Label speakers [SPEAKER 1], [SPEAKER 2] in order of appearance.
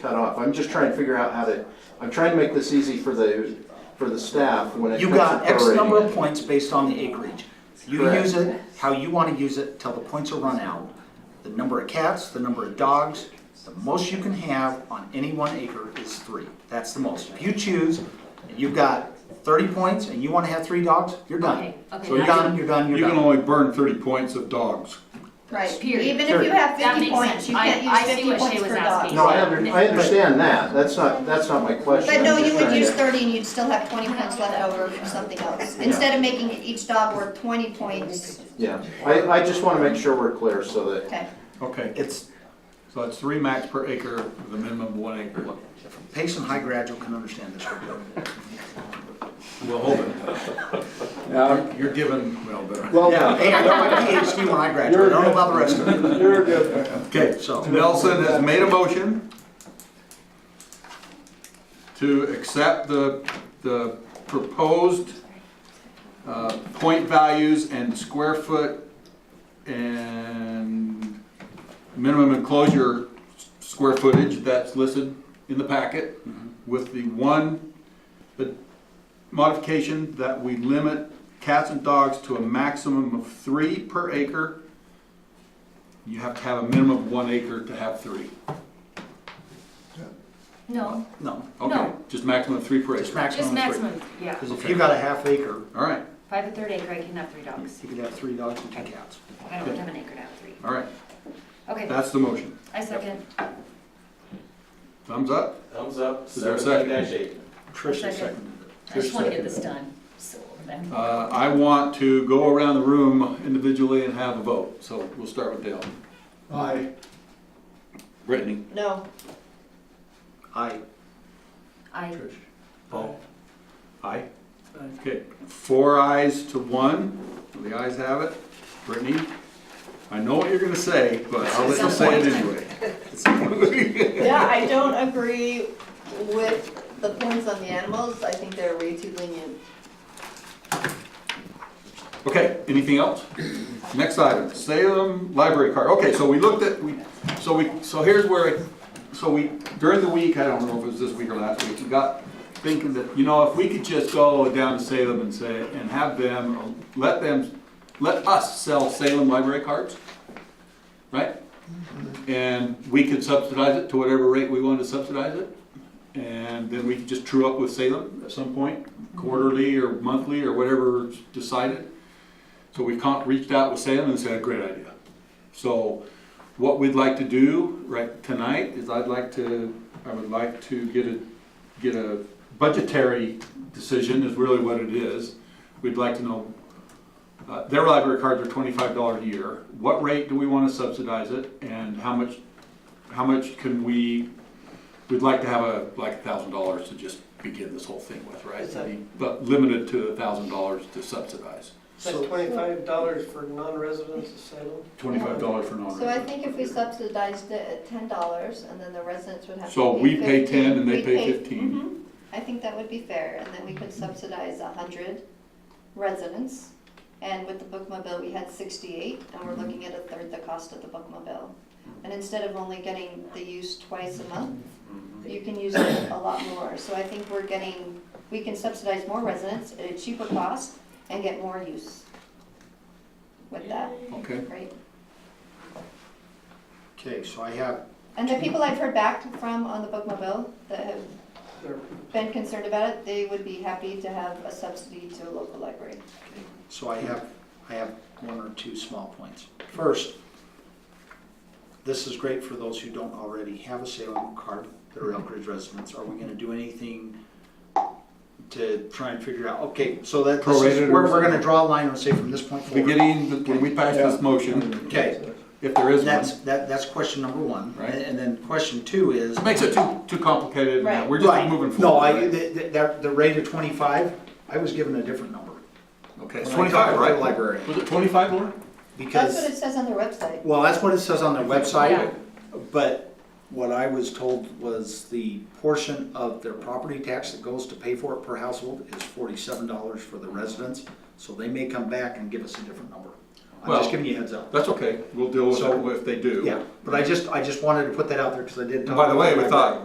[SPEAKER 1] cut off. I'm just trying to figure out how to, I'm trying to make this easy for the, for the staff when it
[SPEAKER 2] You
[SPEAKER 1] comes
[SPEAKER 2] got
[SPEAKER 1] to
[SPEAKER 2] X number
[SPEAKER 1] prorating.
[SPEAKER 2] of points based on the acreage. You
[SPEAKER 1] Correct.
[SPEAKER 2] use it how you want to use it till the points are run out. The number of cats, the number of dogs, the most you can have on any one acre is three. That's the most. If you choose, and you've got thirty points and you want to have three dogs, you're done.
[SPEAKER 3] Okay, okay,
[SPEAKER 2] So you're
[SPEAKER 3] now-
[SPEAKER 2] done, you're done,
[SPEAKER 4] You
[SPEAKER 2] you're
[SPEAKER 4] can
[SPEAKER 2] done.
[SPEAKER 4] only burn thirty points of dogs.
[SPEAKER 5] Right,
[SPEAKER 3] Period.
[SPEAKER 5] even if you
[SPEAKER 3] That
[SPEAKER 5] have fifty
[SPEAKER 3] makes sense.
[SPEAKER 5] points, you
[SPEAKER 3] I-
[SPEAKER 5] can't
[SPEAKER 3] I
[SPEAKER 5] use
[SPEAKER 3] see
[SPEAKER 5] fifty
[SPEAKER 3] what she
[SPEAKER 5] points
[SPEAKER 3] was
[SPEAKER 5] per
[SPEAKER 3] asking.
[SPEAKER 5] dog.
[SPEAKER 1] No, I under, I understand that. That's not, that's not my question.
[SPEAKER 5] But no,
[SPEAKER 1] I'm just
[SPEAKER 5] you would
[SPEAKER 1] trying
[SPEAKER 5] use
[SPEAKER 1] to-
[SPEAKER 5] thirty and you'd still have twenty points left over for something else. Instead of making each dog worth twenty points,
[SPEAKER 1] Yeah, I, I just wanna make sure we're clear so that,
[SPEAKER 5] okay.
[SPEAKER 4] Okay,
[SPEAKER 2] It's,
[SPEAKER 4] so that's three max per acre with a minimum of one acre.
[SPEAKER 2] Pace and High Graduate can understand this real good.
[SPEAKER 4] Well, hold it.
[SPEAKER 6] Yeah,
[SPEAKER 4] You're given, well, better.
[SPEAKER 6] well,
[SPEAKER 2] Yeah, hey, I got my PhD when I graduated, I don't know about the rest of it,
[SPEAKER 6] you're good.
[SPEAKER 4] Okay, so Nelson has made a motion to accept the, the proposed uh, point values and square foot and minimum enclosure s- square footage that's listed in the packet with the one the modification that we limit cats and dogs to a maximum of three per acre. You have to have a minimum of one acre to have three.
[SPEAKER 3] No,
[SPEAKER 2] no,
[SPEAKER 4] Okay,
[SPEAKER 3] No.
[SPEAKER 4] just maximum of three per
[SPEAKER 2] just
[SPEAKER 4] acre.
[SPEAKER 3] just
[SPEAKER 2] maximum of three.
[SPEAKER 3] maximum, yeah.
[SPEAKER 2] Because if you got a half acre,
[SPEAKER 4] All right,
[SPEAKER 3] If I have a third acre, I can have three dogs.
[SPEAKER 2] you could have three dogs and two cats.
[SPEAKER 3] I don't have an acre to have three.
[SPEAKER 4] all right,
[SPEAKER 3] Okay,
[SPEAKER 4] that's the motion.
[SPEAKER 3] I second.
[SPEAKER 4] Thumbs up?
[SPEAKER 7] Thumbs up,
[SPEAKER 4] Is there a second?
[SPEAKER 7] seventeen dash eight.
[SPEAKER 2] Tricia
[SPEAKER 3] Second.
[SPEAKER 2] seconded it.
[SPEAKER 3] I just want to get this done, so then.
[SPEAKER 4] Uh, I want to go around the room individually and have a vote, so we'll start with Dale.
[SPEAKER 6] Aye.
[SPEAKER 4] Brittany.
[SPEAKER 5] No,
[SPEAKER 2] I,
[SPEAKER 3] I,
[SPEAKER 4] Trish. Paul. Aye. Okay, four ayes to one, the ayes have it. Brittany, I know what you're gonna say, but I'll let you say it anyway.
[SPEAKER 5] yeah, I don't agree with the points on the animals. I think they're way too lenient.
[SPEAKER 4] Okay, anything else? Next item, Salem library card. Okay, so we looked at, we, so we, so here's where, I- so we, during the week, I don't know if it was this week or last week, we got thinking that, you know, if we could just go down to Salem and say, and have them, let them, let us sell Salem library cards, right? And we could subsidize it to whatever rate we wanted to subsidize it. And then we could just true up with Salem at some point, quarterly or monthly or whatever decided. So we con- reached out with Salem and said, great idea. So what we'd like to do right tonight is I'd like to, I would like to get a, get a budgetary decision is really what it is. We'd like to know, uh, their library cards are twenty-five dollars a year. What rate do we wanna subsidize it and how much, how much can we, we'd like to have a, like a thousand dollars to just begin this whole thing with, right?
[SPEAKER 8] Is that-
[SPEAKER 4] But limited to a thousand dollars to subsidize.
[SPEAKER 8] So twenty-five dollars for non-residents of Salem?
[SPEAKER 4] Twenty-five dollars for non
[SPEAKER 5] So I think if we subsidized it at ten dollars and then the residents would have to pay
[SPEAKER 4] So we pay
[SPEAKER 5] 15,
[SPEAKER 4] 10 and they
[SPEAKER 5] we'd
[SPEAKER 4] pay 15.
[SPEAKER 5] Mhm. I think that would be fair, and then we could subsidize a hundred residents. And with the bookmobile, we had sixty-eight, and we're looking at a third the cost of the bookmobile. And instead of only getting the use twice a month, you can use it a lot more. So I think we're getting, we can subsidize more residents at a cheaper cost and get more use with that,
[SPEAKER 4] Okay,
[SPEAKER 5] right?
[SPEAKER 2] okay, so I have,
[SPEAKER 5] And the people I've heard back from on the bookmobile that have
[SPEAKER 8] They're-
[SPEAKER 5] been concerned about it, they would be happy to have a subsidy to a local library.
[SPEAKER 2] so I have, I have one or two small points. First, this is great for those who don't already have a Salem card that are Elk Ridge residents. Are we gonna do anything to try and figure out, okay, so that, this
[SPEAKER 4] Prorated
[SPEAKER 2] is,
[SPEAKER 4] or
[SPEAKER 2] we're, we're gonna draw a line and say from this point forward.
[SPEAKER 4] beginning, the- when we pass this motion,
[SPEAKER 2] Okay,
[SPEAKER 4] if there is one.
[SPEAKER 2] that's, that, that's question number one.
[SPEAKER 4] Right.
[SPEAKER 2] And then question two is,
[SPEAKER 4] It Makes it too, too complicated, and that- we're
[SPEAKER 2] Right.
[SPEAKER 4] just moving forward.
[SPEAKER 2] No, I,
[SPEAKER 4] right?
[SPEAKER 2] the, the, that- the rate of twenty-five, I was given a different number.
[SPEAKER 4] Okay, it's
[SPEAKER 2] When I talked
[SPEAKER 4] twenty-five,
[SPEAKER 2] to the
[SPEAKER 4] right?
[SPEAKER 2] Librarian,
[SPEAKER 4] Was it twenty-five, Laura?
[SPEAKER 5] That's what
[SPEAKER 2] because,
[SPEAKER 5] it says on their website.
[SPEAKER 2] well, that's what it says on their
[SPEAKER 3] Yeah.
[SPEAKER 2] website, but what I was told was the portion of their property tax that goes to pay for it per household is forty-seven dollars for the residents, so they may come back and give us a different number. I'm
[SPEAKER 4] Well-
[SPEAKER 2] just giving you a heads up.
[SPEAKER 4] That's okay, we'll deal with
[SPEAKER 2] So-
[SPEAKER 4] it if they do.
[SPEAKER 2] Yeah, but I just, I just wanted to put that out there, because I did.
[SPEAKER 4] And
[SPEAKER 2] talk
[SPEAKER 4] by the
[SPEAKER 2] to
[SPEAKER 4] way,
[SPEAKER 2] my
[SPEAKER 4] we thought,